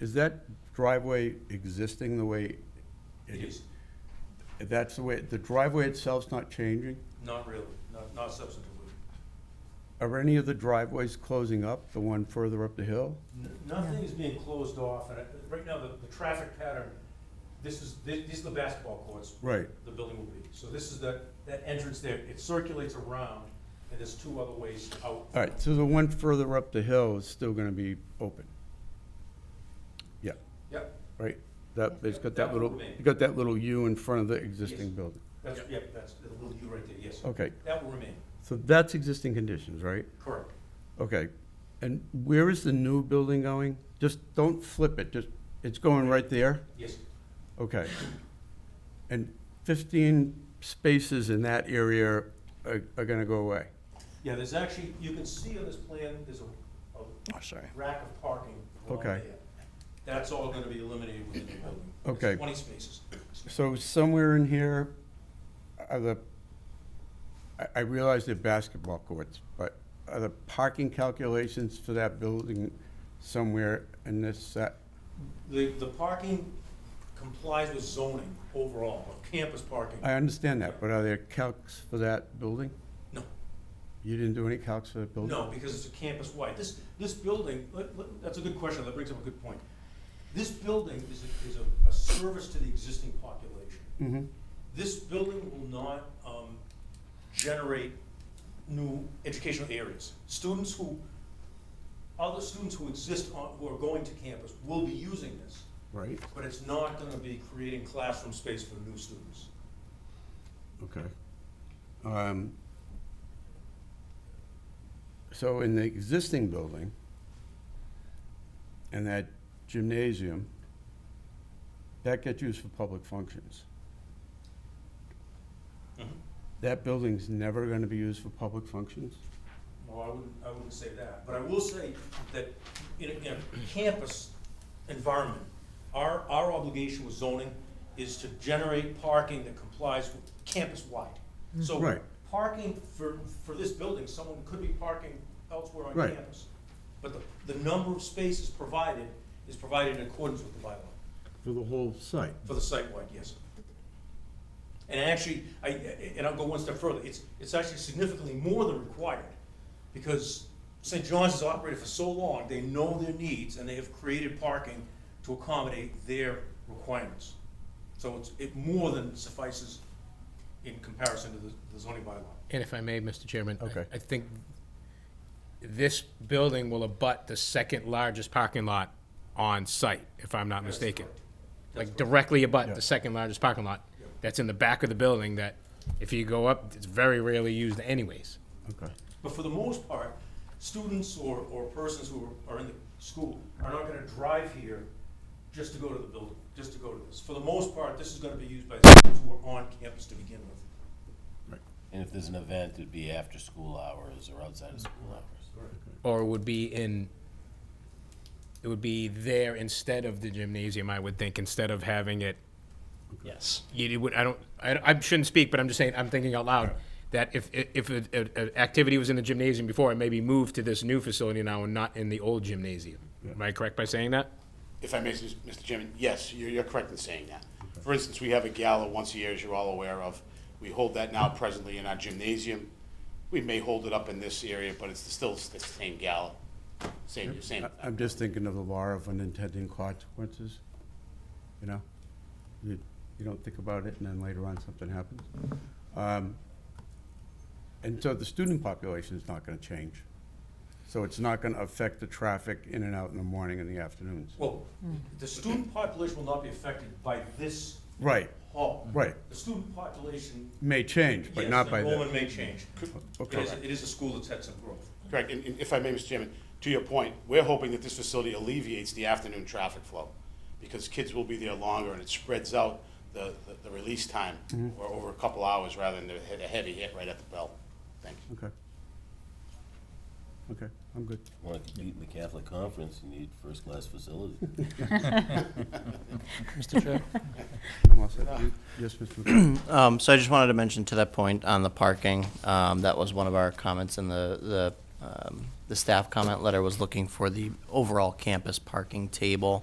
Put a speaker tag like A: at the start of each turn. A: Is that driveway existing the way?
B: It is,
A: That's the way, the driveway itself's not changing?
B: not really, not, not substantively.
A: Are any of the driveways closing up, the one further up the hill?
B: N- Nothing is being closed off, and uh, right now, the, the traffic pattern, this is, thi- these are the basketball courts.
A: Right.
B: The building will be, so this is the, that entrance there, it circulates around, and there's two other ways out.
A: All right, so the one further up the hill is still gonna be open? Yeah,
B: Yep,
A: right? That, it's got that
B: That will
A: little,
B: remain.
A: you got that little U in front of the existing
B: Yes.
A: building?
B: that's, yep, that's, the little U right there, yes.
A: Okay,
B: That will remain,
A: so that's existing conditions, right?
B: correct.
A: Okay, and where is the new building going? Just don't flip it, just, it's going right there?
B: Yes,
A: Okay. And 15 spaces in that area are are gonna go away?
B: yeah, there's actually, you can see on this plan, there's a, a
A: Oh, sorry.
B: rack of parking along
A: Okay.
B: there. That's all gonna be eliminated within the building. There's
A: Okay.
B: Twenty spaces.
A: So somewhere in here are the, I- I realize they're basketball courts, but are the parking calculations for that building somewhere in this uh, set?
B: The, the parking complies with zoning overall, of campus parking.
A: I understand that, but are there calcs for that building?
B: No,
A: You didn't do any calcs for that building?
B: no, because it's a campus-wide. This, this building, let- let- that's a good question, that brings up a good point. This building is, a- is a, a service to the existing population.
A: Mhm.
B: This building will not, um, generate new educational areas. Students who, other students who exist on, who are going to campus will be using this,
A: Right,
B: but it's not gonna be creating classroom space for new students.
A: okay. Um, So in the existing building, and that gymnasium, that gets used for public functions. Mm-hmm.
B: Mhm.
A: That building's never gonna be used for public functions?
B: No, I wouldn't, I wouldn't say that, but I will say that in a, in a campus environment, our, our obligation with zoning is to generate parking that complies with campus-wide. So,
A: Mm. Right.
B: parking for, for this building, someone could be parking elsewhere on
A: Right.
B: campus. But the, the number of spaces provided is provided in accordance with the bylaw,
A: For the whole site?
B: for the site-wide, yes. And actually, I, and I'll go one step further, it's, it's actually significantly more than required, because St. John's has operated for so long, they know their needs, and they have created parking to accommodate their requirements. So it's, it more than suffices in comparison to the the zoning bylaw.
C: And if I may, Mr. Chairman. I-
A: Okay.
C: I think this building will abut the second largest parking lot on site, if I'm not
B: That's
C: mistaken.
B: correct. That's
C: Like directly abut
A: Yeah.
C: the second largest parking lot
B: Yeah.
C: that's in the back of the building that if you go up, it's very rarely used anyways.
A: Okay.
B: But for the most part, students or, or persons who are, are in the school are not gonna drive here just to go to the building, just to go to this. For the most part, this is gonna be used by students who are on campus to begin with.
D: And if there's an event, it'd be after school hours or outside of school hours.
C: Or would be in, it would be there instead of the gymnasium, I would think, instead of having it
D: Yes.
C: you you would, I don't, I, I shouldn't speak, but I'm just saying, I'm thinking out loud, that if, if a- a- an activity was in the gymnasium before, it maybe moved to this new facility now and not in the old gymnasium. Am I correct by saying that?
E: If I may, Mr. Chairman, yes, you're, you're correct in saying that. For instance, we have a gala once a year, as you're all aware of. We hold that now presently in our gymnasium. We may hold it up in this area, but it's still the same gala, same, same.
A: I- I'm just thinking of the law of unintended consequences, you know? You, you don't think about it, and then later on, something happens. Um, And so the student population is not gonna change. So it's not gonna affect the traffic in and out in the morning and the afternoons.
B: Well, the student population will not be affected by this
A: Right,
B: hall.
A: right,
B: The student population,
A: may change, but
B: yes,
A: not by
B: enrollment
A: then.
B: may change. It
A: Okay,
B: is, it is a school that's had some growth.
E: Correct, and, and if I may, Mr. Chairman, to your point, we're hoping that this facility alleviates the afternoon traffic flow, because kids will be there longer, and it spreads out the, the- the release time, or over a couple hours, rather than the- the heavy hit right at the bell. Thank you.
A: okay. Okay, I'm good.
D: Want to compete in the Catholic Conference, you need first-class facilities.
F: Mr. Chair?
A: I'm all set. You- Yes, Mr. McCarthy?
F: Um, so I just wanted to mention to that point on the parking, um, that was one of our comments in the, the, um, the staff comment letter was looking for the overall campus parking table.